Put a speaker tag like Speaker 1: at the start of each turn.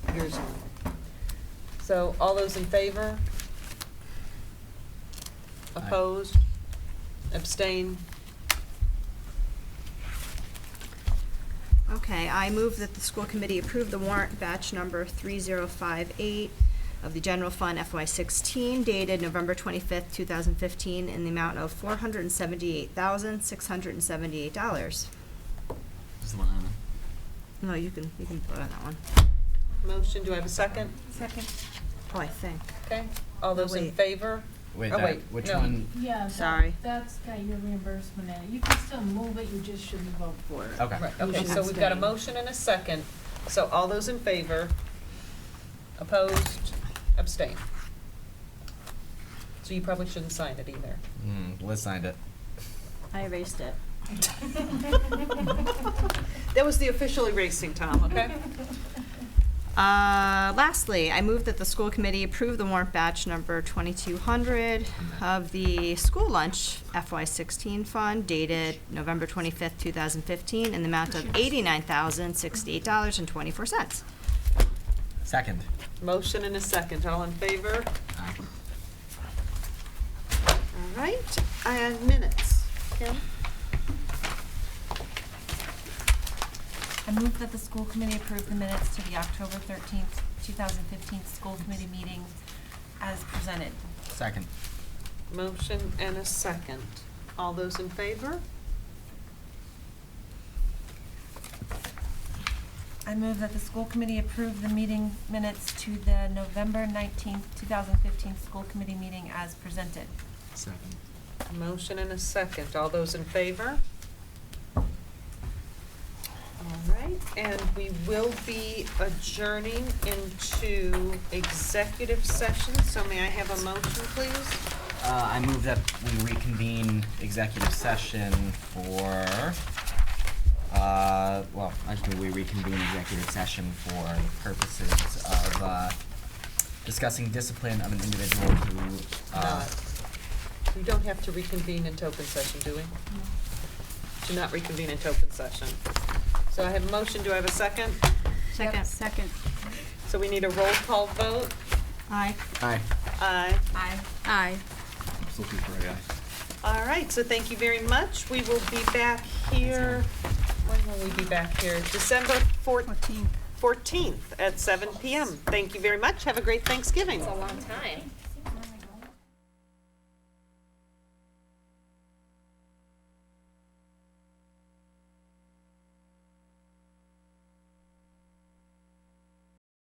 Speaker 1: yours on. So all those in favor?
Speaker 2: Aye.
Speaker 1: Opposed? Abstain?
Speaker 3: Okay, I move that the school committee approve the warrant batch number 3058 of the general fund FY16 dated November 25th, 2015, in the amount of $478,678.
Speaker 2: Just the one on
Speaker 3: No, you can, you can vote on that one.
Speaker 1: Motion, do I have a second?
Speaker 3: Second. Oh, I think.
Speaker 1: Okay, all those in
Speaker 3: Wait.
Speaker 1: favor?
Speaker 2: it. Wait,
Speaker 1: Oh,
Speaker 2: that,
Speaker 1: wait,
Speaker 2: which
Speaker 1: no.
Speaker 2: one?
Speaker 4: Yeah,
Speaker 3: Sorry.
Speaker 4: that, that's got your reimbursement in it. You can still move it, you just shouldn't vote for it.
Speaker 2: Okay.
Speaker 1: Right, okay, so we've got a motion and a second, so all those in favor? Opposed? Abstain? So you probably shouldn't sign it either.
Speaker 2: Mm, Liz signed it.
Speaker 3: I erased it.
Speaker 1: That was the official erasing, Tom, okay?
Speaker 3: Uh, Lastly, I move that the school committee approve the warrant batch number 2200 of the school lunch FY16 fund dated November 25th, 2015, in the amount of $89,068.24.
Speaker 2: Second.
Speaker 1: Motion and a second, all in favor?
Speaker 2: Aye.
Speaker 1: All right, and minutes. Kim?
Speaker 5: I move that the school committee approve the minutes to the October thirteenth, two thousand fifteen school committee meeting as presented.
Speaker 2: Second.
Speaker 1: Motion and a second. All those in favor?
Speaker 5: I move that the school committee approve the meeting minutes to the November nineteenth, two thousand fifteen school committee meeting as presented.
Speaker 2: Second.
Speaker 1: Motion and a second. All those in favor? All right, and we will be adjourning into executive session, so may I have a motion, please?
Speaker 2: Uh, I move that we reconvene executive session for, uh, well, I just move we reconvene executive session for the purposes of, uh, discussing discipline of an individual who, uh,
Speaker 1: We don't have to reconvene into open session, do we? Do not reconvene into open session. So I have a motion. Do I have a second?
Speaker 3: Second. Second.
Speaker 1: So we need a roll call vote.
Speaker 3: Aye.
Speaker 2: Aye.
Speaker 1: Aye.
Speaker 5: Aye.
Speaker 3: Aye.
Speaker 2: I'm still looking for a aye.
Speaker 1: All right, so thank you very much. We will be back here, when will we be back here? December four- 14th at seven PM. Thank you very much. Have a great Thanksgiving.
Speaker 6: long time.